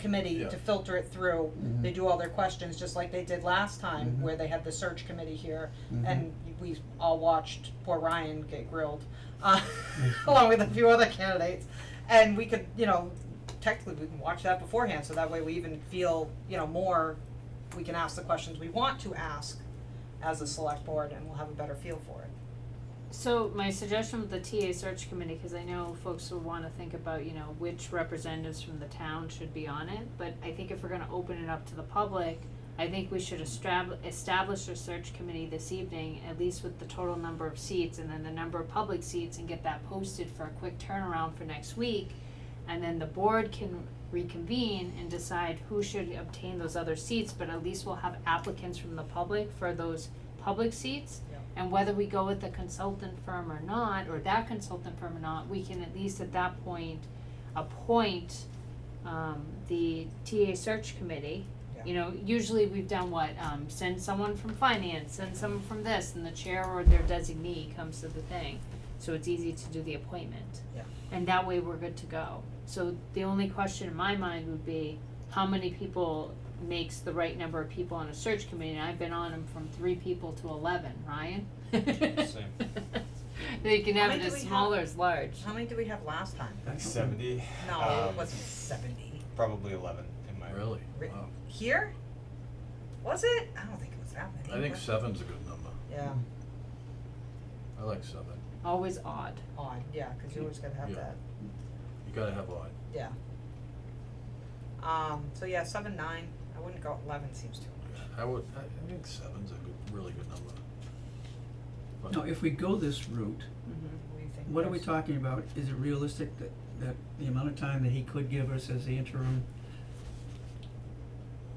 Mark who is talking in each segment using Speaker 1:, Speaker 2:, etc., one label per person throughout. Speaker 1: committee
Speaker 2: Yeah.
Speaker 1: to filter it through.
Speaker 3: Mhm.
Speaker 1: They do all their questions, just like they did last time, where they had the search committee here, and we all watched poor Ryan get grilled, uh, along with a few other candidates. And we could, you know, technically, we can watch that beforehand, so that way we even feel, you know, more, we can ask the questions we want to ask as a select board, and we'll have a better feel for it.
Speaker 4: So my suggestion with the TA search committee, cause I know folks will wanna think about, you know, which representatives from the town should be on it, but I think if we're gonna open it up to the public, I think we should establish, establish a search committee this evening, at least with the total number of seats and then the number of public seats and get that posted for a quick turnaround for next week. And then the board can reconvene and decide who should obtain those other seats, but at least we'll have applicants from the public for those public seats.
Speaker 1: Yeah.
Speaker 4: And whether we go with the consultant firm or not, or that consultant firm or not, we can at least at that point appoint um the TA search committee. You know, usually we've done what, um send someone from finance, send someone from this, and the chair or their designee comes to the thing. So it's easy to do the appointment.
Speaker 1: Yeah.
Speaker 4: And that way we're good to go. So the only question in my mind would be, how many people makes the right number of people on a search committee, and I've been on them from three people to eleven, Ryan?
Speaker 5: Same.
Speaker 4: They can have
Speaker 1: How many do
Speaker 4: it as
Speaker 1: we have?
Speaker 4: small or as large.
Speaker 1: How many did we have last time?
Speaker 2: Like seventy.
Speaker 1: No,
Speaker 2: um,
Speaker 1: it wasn't seventy.
Speaker 2: Probably eleven in my.
Speaker 3: Really?
Speaker 1: Re-
Speaker 3: Wow.
Speaker 1: Here? Was it? I don't think it was that many.
Speaker 3: I think
Speaker 1: was it?
Speaker 3: seven's a good number.
Speaker 1: Yeah,
Speaker 3: I like seven.
Speaker 4: Always odd.
Speaker 1: odd, yeah, cause you always gotta have
Speaker 3: Yeah.
Speaker 1: that,
Speaker 3: You gotta have odd.
Speaker 1: yeah. Um, so yeah, seven, nine, I wouldn't go, eleven seems too much.
Speaker 3: I would, I I think seven's a good, really good number. But-
Speaker 6: Now, if we go this route,
Speaker 4: Mm-hmm.
Speaker 1: What do you think?
Speaker 6: what are we
Speaker 1: Chris?
Speaker 6: talking about? Is it realistic that, that the amount of time that he could give us as the interim?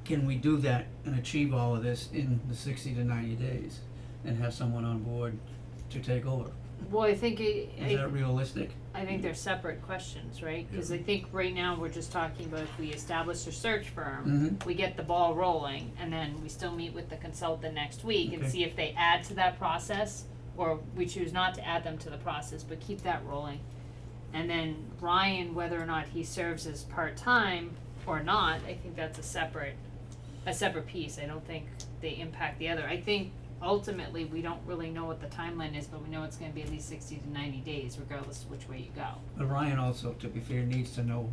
Speaker 6: Can we do that and achieve all of this in the sixty to ninety days and have someone on board to take over?
Speaker 4: Well, I think it,
Speaker 6: Is that
Speaker 4: I,
Speaker 6: realistic?
Speaker 4: I think they're separate questions, right? Cause I think right now we're just talking about if we establish a search
Speaker 6: Mm-hmm.
Speaker 2: Mm-hmm.
Speaker 4: firm, we get the ball rolling, and then we still meet with the consultant next week and
Speaker 6: Okay.
Speaker 4: see if they add to that process, or we choose not to add them to the process, but keep that rolling. And then Ryan, whether or not he serves as part-time or not, I think that's a separate, a separate piece, I don't think they impact the other. I think ultimately, we don't really know what the timeline is, but we know it's gonna be at least sixty to ninety days regardless of which way you go.
Speaker 6: But Ryan also, to be fair, needs to know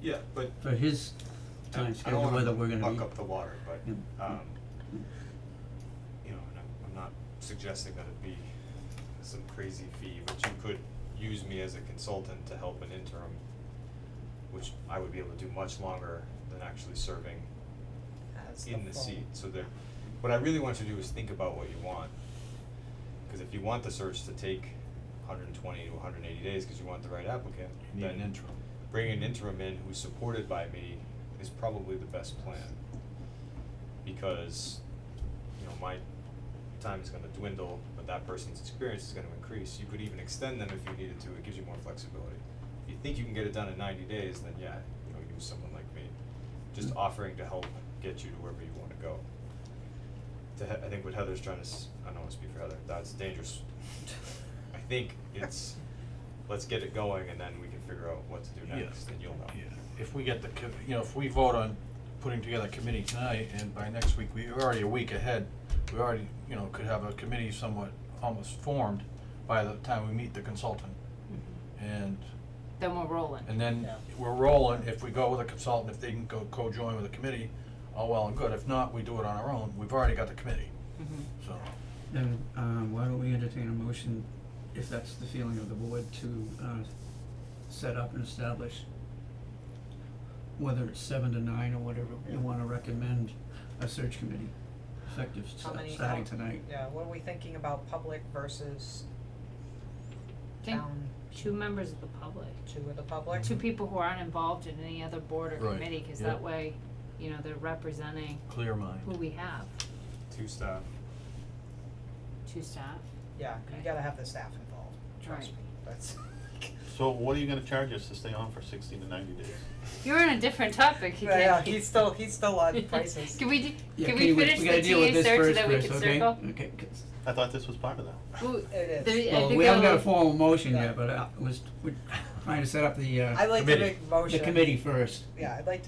Speaker 2: Yeah, but
Speaker 6: for his
Speaker 2: I-
Speaker 6: time
Speaker 2: I don't
Speaker 6: schedule
Speaker 2: wanna
Speaker 6: whether we're gonna
Speaker 2: buck
Speaker 6: be,
Speaker 2: up the water, but,
Speaker 6: Yeah.
Speaker 2: um, you know, and I'm, I'm not suggesting that it be some crazy fee, but you could use me as a consultant to help an interim, which I would be able to do much longer than actually serving
Speaker 1: As
Speaker 2: in the
Speaker 1: full-
Speaker 2: seat, so there, what I really want you to do is think about what you want. Cause if you want the search to take hundred and twenty to hundred and eighty days, cause you want the right applicant,
Speaker 3: You need an
Speaker 2: then
Speaker 3: interim.
Speaker 2: bringing an interim in who's supported by me is probably the best plan. Because, you know, my time is gonna dwindle, but that person's experience is gonna increase, you could even extend them if you needed to, it gives you more flexibility. If you think you can get it done in ninety days, then yeah, you know, use someone like me,
Speaker 3: Mm.
Speaker 2: just offering to help get you to wherever you wanna go. To He- I think what Heather's trying to, s- I don't wanna speak for Heather, that's dangerous. I think it's, let's get it going and then we can figure out what to do
Speaker 3: Yeah.
Speaker 2: next and you'll know.
Speaker 3: Yeah, if we get the, com- you know, if we vote on putting together a committee tonight, and by next week, we're already a week ahead, we already, you know, could have a committee somewhat almost formed by the time we meet the consultant.
Speaker 4: Mm-hmm.
Speaker 3: And,
Speaker 4: Then we're rolling.
Speaker 3: and then
Speaker 1: Yeah.
Speaker 3: we're rolling, if we go with a consultant, if they can go co-join with a committee, all well and good, if not, we do it on our own, we've already got the committee, so.
Speaker 6: then, um, why don't we entertain a motion, if that's the feeling of the board, to, uh, set up and establish whether it's seven to nine or whatever, you wanna recommend a search committee, effective
Speaker 1: How
Speaker 6: sta-
Speaker 1: many-
Speaker 6: starting
Speaker 1: how-
Speaker 6: tonight.
Speaker 1: Yeah, what are we thinking about public versus
Speaker 4: Think
Speaker 1: town,
Speaker 4: two members of the public,
Speaker 1: two of the public?
Speaker 4: two people who aren't involved in any other board or
Speaker 3: Right,
Speaker 4: committee, cause
Speaker 3: yeah.
Speaker 4: that way, you know, they're representing
Speaker 3: Clear mind.
Speaker 4: who we have,
Speaker 2: Two staff.
Speaker 4: two staff.
Speaker 1: Yeah, you
Speaker 4: Okay.
Speaker 1: gotta have the staff involved, trust
Speaker 4: Right.
Speaker 1: me, that's.
Speaker 7: So what are you gonna charge us to stay on for sixty to ninety days?
Speaker 4: You're on a different topic
Speaker 1: Yeah, yeah,
Speaker 4: again.
Speaker 1: he's still, he's still on prices.
Speaker 4: Can we, do-
Speaker 6: Yeah,
Speaker 4: can
Speaker 6: you
Speaker 4: we
Speaker 6: wait-
Speaker 4: finish
Speaker 6: gotta
Speaker 4: the
Speaker 6: deal with
Speaker 4: TA
Speaker 6: this
Speaker 4: search
Speaker 6: first,
Speaker 4: so that we
Speaker 6: Chris,
Speaker 4: can
Speaker 6: okay?
Speaker 4: circle?
Speaker 6: Okay, 'cause-
Speaker 7: I thought this was part of that.
Speaker 4: Ooh,
Speaker 1: It is.
Speaker 4: there- I
Speaker 6: well,
Speaker 4: think
Speaker 6: we haven't got a
Speaker 4: I'll-
Speaker 6: formal motion
Speaker 1: Yeah.
Speaker 6: yet, but, uh, was, we, trying to set up the, uh,
Speaker 1: I'd like to
Speaker 8: Committee.
Speaker 1: make a motion.
Speaker 6: the committee first.
Speaker 1: Yeah, I'd like to